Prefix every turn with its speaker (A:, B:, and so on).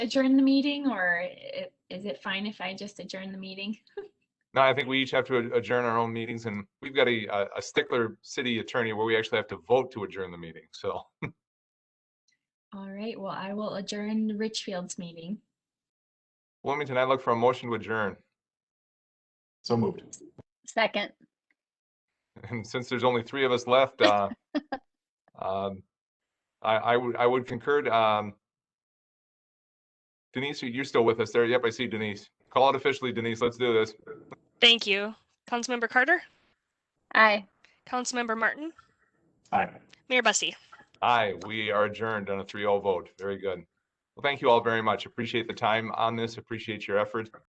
A: adjourn the meeting or i- is it fine if I just adjourn the meeting?
B: No, I think we each have to ad- adjourn our own meetings and we've got a, a- a stickler city attorney where we actually have to vote to adjourn the meeting. So,
A: All right, well, I will adjourn the Richfield's meeting.
B: Wilmington, I look for a motion to adjourn.
C: So moved.
D: Second,
B: And since there's only three of us left, uh, um, I, I would, I would concur. Um, Denise, you- you're still with us there. Yep, I see Denise. Call it officially, Denise. Let's do this.
E: Thank you. Councilmember Carter,
D: aye.
E: Councilmember Martin,
C: Aye.
E: Mayor Bussey.
B: Aye, we are adjourned on a 3-0 vote. Very good. Well, thank you all very much. Appreciate the time on this. Appreciate your effort.